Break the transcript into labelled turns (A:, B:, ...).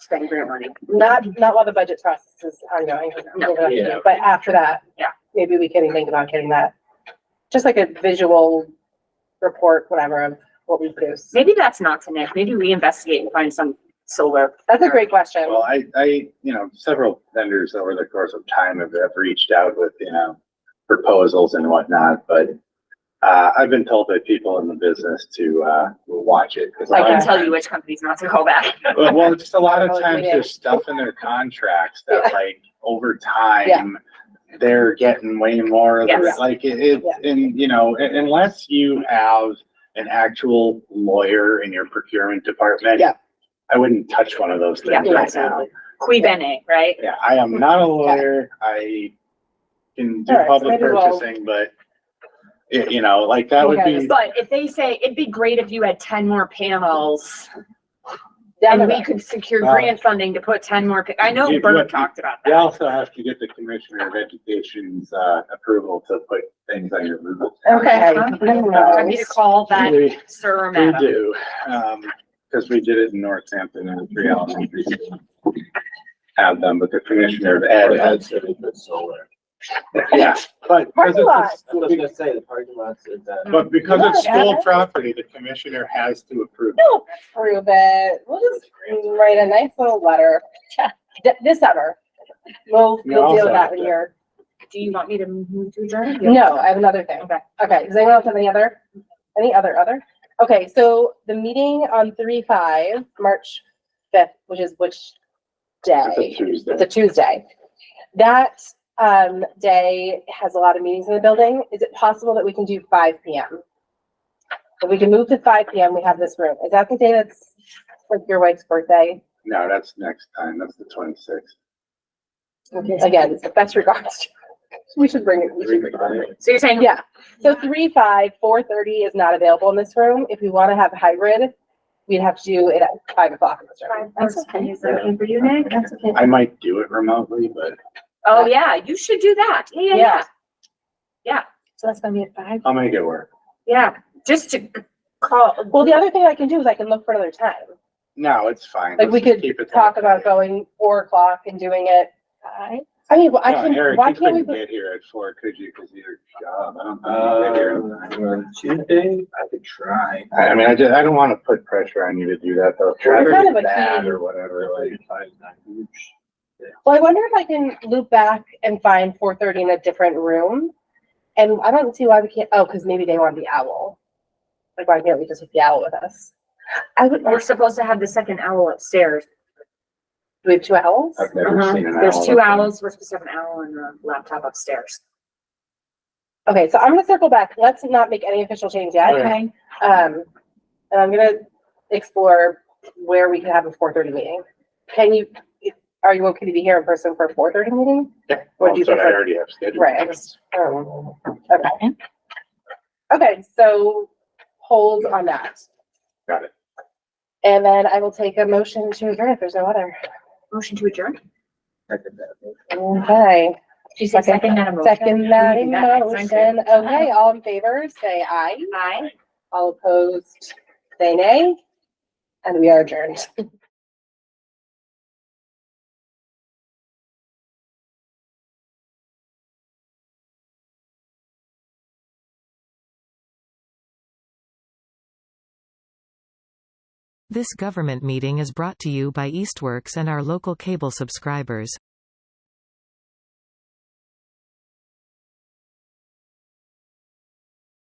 A: spend grant money.
B: Not, not while the budget process is ongoing,
A: No.
C: Yeah.
B: but after that.
A: Yeah.
B: Maybe we can think about getting that, just like a visual report, whatever, of what we produce.
A: Maybe that's not to Nick. Maybe we investigate and find some solar.
B: That's a great question.
C: Well, I, I, you know, several vendors over the course of time have, have reached out with, you know, proposals and whatnot, but uh, I've been told by people in the business to, uh, watch it. 'cause
A: I
B: Like
A: can
B: Okay.
A: tell you which companies not to call back.
C: Well, well, just a lot
B: Oh,
C: of times
B: yeah.
C: there's stuff in their contracts that like over
B: Yeah.
C: time, they're getting way more of it.
A: Yes.
C: Like it, it, and you know, un- unless you have an actual lawyer in your procurement department.
B: Yeah.
C: I wouldn't touch one of those
A: Yeah,
C: things right now.
B: absolutely.
A: Qui bene, right?
C: Yeah, I am not a lawyer. I can do
B: All right, so
C: public
B: maybe we'll-
C: purchasing, but y- you know, like that would
B: Okay.
C: be,
A: But if they say, it'd be great if you had ten more panels,
B: Down the
A: and we
B: road.
A: could secure
C: Wow.
A: grant funding to put ten more, pa- I know
C: You-
A: Bert
C: what-
A: talked about
C: you
A: that.
C: also have to get the Commissioner of Education's, uh, approval to put things on your move.
B: Okay.
A: I need to call that
C: We
A: sir or
C: we
A: madam.
C: do, um, because we did it in Northampton and the three elementary schools. Have them, but the Commissioner of Ed, had-
D: solar.
C: yeah, but. because
B: Parking lot.
C: it's
D: I was gonna say, the parking lots is
C: a-
D: that.
C: But because it's
B: Not
C: school
B: Ed.
C: property, the Commissioner has to approve.
B: We'll approve it. We'll just write a nice little letter. Th- This summer. We'll,
C: We
B: we'll deal
C: also
B: with that
C: have
B: when
C: to-
B: you're,
A: Do you want me to move to adjourn?
B: no, I have another thing.
A: Okay.
B: Okay, does anyone else have any other, any other, other? Okay, so the meeting on three five, March fifth, which is which
C: It's a
B: day?
C: Tuesday.
B: It's a Tuesday. That, um, day has a lot of meetings in the building. Is it possible that we can do five P M? If we can move to five P M, we have this room. Is that the day that's like your wife's birthday?
C: No, that's next time. That's the twenty-sixth.
B: Again, it's the best regards. We should bring it, we should bring it.
A: So you're saying,
B: Yeah, so three, five, four thirty is not available in this room. If we want to have hybrid, we'd have to do it at five o'clock in this room.
E: That's okay. Is that okay for you, Nick? That's okay.
C: I might do it remotely, but
A: oh yeah, you should do that, yeah, yeah, yeah,
B: Yeah.
E: So that's gonna be at five.
C: I'll make it work.
A: yeah, just to call.
B: Well, the other thing I can do is I can look for another time.
C: No, it's fine.
B: Like, we
C: Let's just
B: could
C: keep it
B: Talk
C: there.
B: about going four o'clock and doing it.
E: Five.
B: I mean, well, I
C: No,
B: can,
C: Eric,
B: why
C: you
B: can't we,
C: couldn't
B: put-
C: Get here at four, could you? Cause your job. I don't think you'd
D: Uh,
C: get here.
D: on Tuesday, I could try.
C: I I mean, I just, I don't wanna put pressure on you to do that though. Traffic
B: kind
C: is
B: of a
C: bad
B: team.
C: or whatever, like.
B: well, I wonder if I can loop back and find four thirty in a different room? And I don't see why we can't, oh, because maybe they want the owl. Like, why can't we just have the owl with us? I would,
A: We're
B: do
A: supposed to have the second owl upstairs.
B: we have two owls?
C: I've never
A: Uh-huh.
C: seen an owl.
A: There's two
C: like that.
A: owls, we're supposed to have an owl and a laptop upstairs.
B: Okay, so I'm gonna circle back. Let's not make any official change yet.
E: Okay.
B: Um, and I'm gonna explore where we could have a four thirty meeting. Can you, are you okay to be here in person for a four thirty meeting?
C: Yeah,
B: What do you
C: that's what Oh, I
B: prefer?
C: already have scheduled.
B: Right, I just, I don't know. okay. Okay, so hold on that.
C: Got it.
B: And then I will take a motion to adjourn if there's no other.
A: Motion to adjourn?
B: Okay,
E: She
B: said second
E: that motion.
B: second that
E: We do that next time.
B: motion. Okay, all in favor, say aye.
A: Aye.
B: All opposed, say nay. And we are adjourned.
F: This government meeting is brought to you by Eastworks and our local cable subscribers.